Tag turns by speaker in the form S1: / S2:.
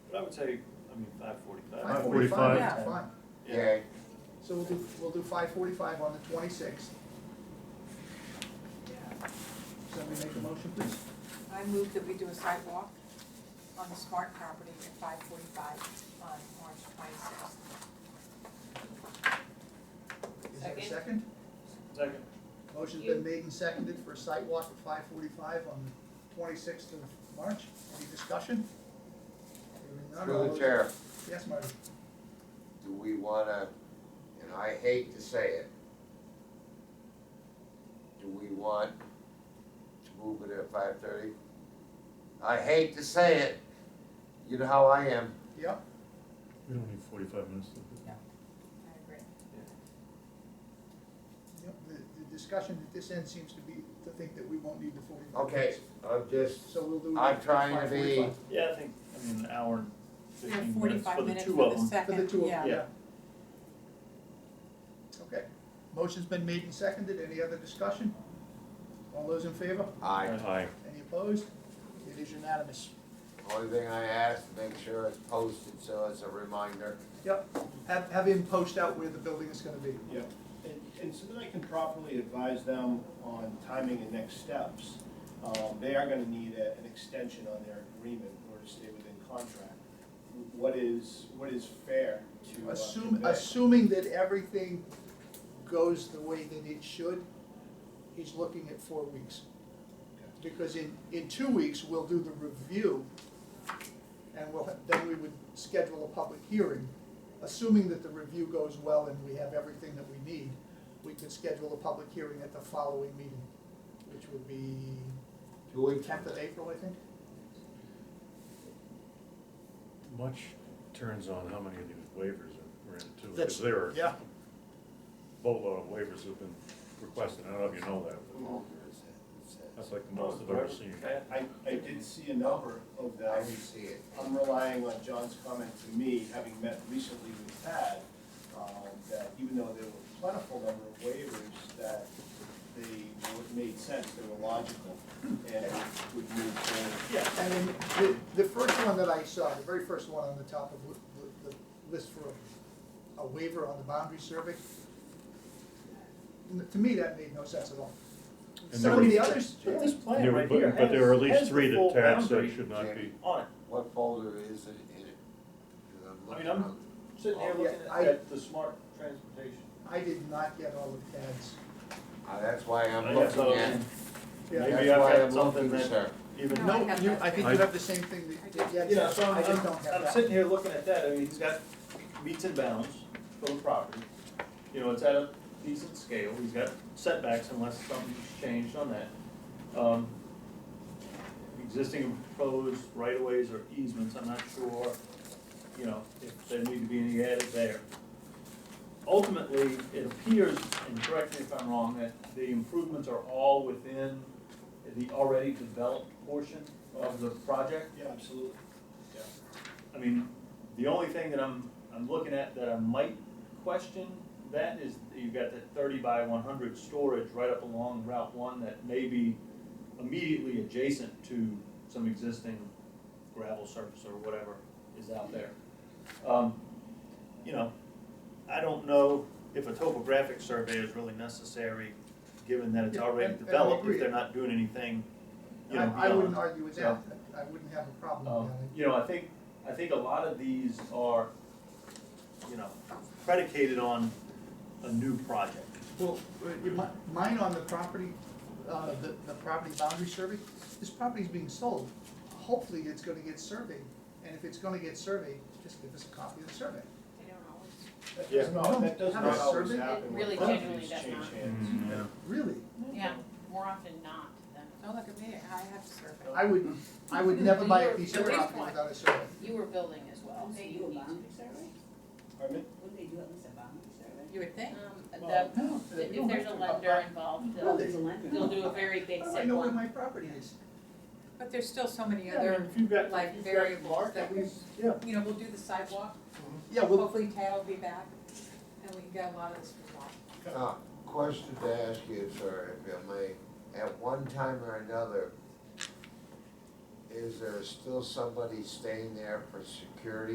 S1: I would say, I mean, five forty-five.
S2: Five
S3: 5:45.
S2: Yeah, fine.
S1: Yeah.
S4: Yay.
S2: So we'll do, we'll do five forty-five on the twenty-sixth. Somebody make a motion, please?
S5: I move that we do a sidewalk on the Smart property at five forty-five on March twenty-sixth.
S2: Is there a
S5: Second.
S2: second?
S1: Second.
S2: Motion's been made and seconded for a site walk at five forty-five on the twenty-sixth of March. Any discussion? Hearing none, all
S4: Through the
S2: those-
S4: chair,
S2: Yes, Marty.
S4: do we wanna, and I hate to say it, do we want to move it at five thirty? I hate to say it, you know how I am,
S2: Yep,
S3: We don't need forty-five minutes. to do that.
S5: I agree.
S2: yep. The, the discussion at this end seems to be to think that we won't need the forty-five
S4: okay,
S2: minutes.
S4: I'm just,
S2: So we'll do.
S4: I'm trying to
S2: 5:45.
S1: Yeah, I think, I mean, an hour and
S5: We have
S1: fifteen minutes for
S5: forty-five
S1: the
S5: minutes
S1: two
S5: for
S1: of
S5: the
S1: them.
S2: For the
S5: second,
S2: two of
S5: yeah.
S2: them,
S1: Yeah.
S2: yeah. Okay, motion's been made and seconded, any other discussion? All those in favor?
S4: I,
S3: Aye.
S2: Any opposed? It is unanimous.
S4: only thing I ask, make sure it's posted, so it's a reminder.
S2: Yep, have, have him post out where the building is gonna be.
S6: Yeah, and, and so that I can properly advise them on timing and next steps, um, they are gonna need a, an extension on their agreement in order to stay within contract. What is, what is fair to uh,
S2: Assume,
S6: convey?
S2: assuming that everything goes the way that it should, he's looking at four weeks. Because in, in two weeks, we'll do the review, and we'll, then we would schedule a public hearing. Assuming that the review goes well and we have everything that we need, we could schedule a public hearing at the following meeting, which would be
S4: Two weeks from
S2: tenth of April, I think.
S3: Much turns on how many of these waivers are granted too,
S2: That's-
S3: because there are
S2: Yeah.
S3: a boatload of waivers have been requested, I don't know if you know that, but
S4: now. It's- it's-
S3: that's like the most I've ever seen.
S6: I, I did see a number of
S4: I
S6: them,
S4: didn't see it.
S6: I'm relying on John's comment to me, having met recently with Tad, um, that even though there were plentiful number of waivers, that they were- made sense, they were logical, and would move forward.
S2: Yeah, and then the, the first one that I saw, the very first one on the top of the, the list for a- a waiver on the boundary survey, n- to me, that made no sense at all.
S3: And
S2: Some
S3: there
S2: of
S3: were-
S2: the others,
S1: But This plan
S3: There were-
S1: right
S3: but-
S1: here
S3: But there are at
S1: has- has
S3: least
S1: the
S3: three
S1: full
S3: that tabs that
S1: boundary
S3: should not be,
S1: On it.
S4: What folder is it in it? 'Cause I'm
S1: I mean,
S4: looking
S1: I'm-
S4: on-
S1: Sitting here
S2: Yeah,
S1: looking
S2: I-
S1: at- at the smart transportation.
S2: I did not get all of Tad's.
S4: Uh, That's why
S1: I
S4: I'm
S1: guess
S4: looking
S1: I'll-
S4: at,
S1: Maybe
S4: that's
S1: I've
S4: why
S1: got
S4: I'm
S1: something
S4: looking,
S1: that-
S4: sir.
S1: Even,
S5: No,
S2: No, you, I think
S3: I-
S2: you have the same thing that, that Jan
S1: you know, so
S2: said.
S1: I'm,
S2: I just don't have that.
S1: I'm, I'm sitting here looking at that, I mean, he's got meets and bounds for the property. You know, it's at a decent scale, he's got setbacks unless something's changed on that. Um, Existing and proposed right of ways or easements, I'm not sure, you know, if there need to be any added there. Ultimately, it appears, and correct me if I'm wrong, that the improvements are all within the already developed portion of the project.
S6: Yeah, absolutely. Yeah.
S1: I mean, the only thing that I'm, I'm looking at that I might question that is that you've got that thirty by one hundred storage right up along Route One that may be immediately adjacent to some existing gravel surface or whatever is out there. Um, You know, I don't know if a topographic survey is really necessary, given that it's
S2: Yeah,
S1: already
S2: and- and I
S1: developed,
S2: agree.
S1: if they're not doing anything, you know,
S2: I, I wouldn't
S1: beyond.
S2: argue with that, I wouldn't have a problem
S1: Um,
S2: with that.
S1: you know, I think, I think a lot of these are, you know, predicated on a new project.
S2: Well, uh, my- mine on the property, uh, the, the property boundary survey, this property's being sold. Hopefully, it's gonna get surveyed, and if it's gonna get surveyed, just give us a copy of the survey.
S7: They don't always.
S6: That
S1: Yeah.
S6: does not, that does
S2: Have
S6: not
S2: a
S6: always
S2: survey?
S6: happen.
S7: It
S6: when
S7: really
S6: properties
S7: genuinely does
S6: change
S7: not.
S6: hands.
S3: yeah.
S2: Really?
S7: Yeah, more often not than.
S5: Don't look at me, I have to serve it.
S2: I would, I would never buy a piece of
S7: Nobody's
S2: property
S7: bought.
S2: without a survey.
S7: You were building as well,
S8: Wouldn't
S7: so
S8: they
S7: you
S8: do a
S7: need to.
S8: boundary survey?
S6: Pardon me?
S8: Wouldn't they do at least a boundary survey?
S5: You would think.
S7: Um,
S6: Well,
S7: the,
S2: No.
S7: the- if there's a lender involved,
S2: Well,
S7: they'll,
S2: they-
S8: There's a lender.
S7: they'll do a very
S2: How do I
S7: basic
S2: know where
S7: one.
S2: my property is?
S5: But there's still so many
S1: Yeah, I mean,
S5: other,
S1: if you've got-
S5: like,
S1: you've got
S5: variables that we,
S1: markings, Yeah,
S5: you know, we'll do the sidewalk,
S2: Yeah, well,
S5: hopefully Tad will be back, and we can get a lot of this resolved.
S4: Uh, Question to ask you, sir, if I may. At one time or another, Is there still somebody staying there for security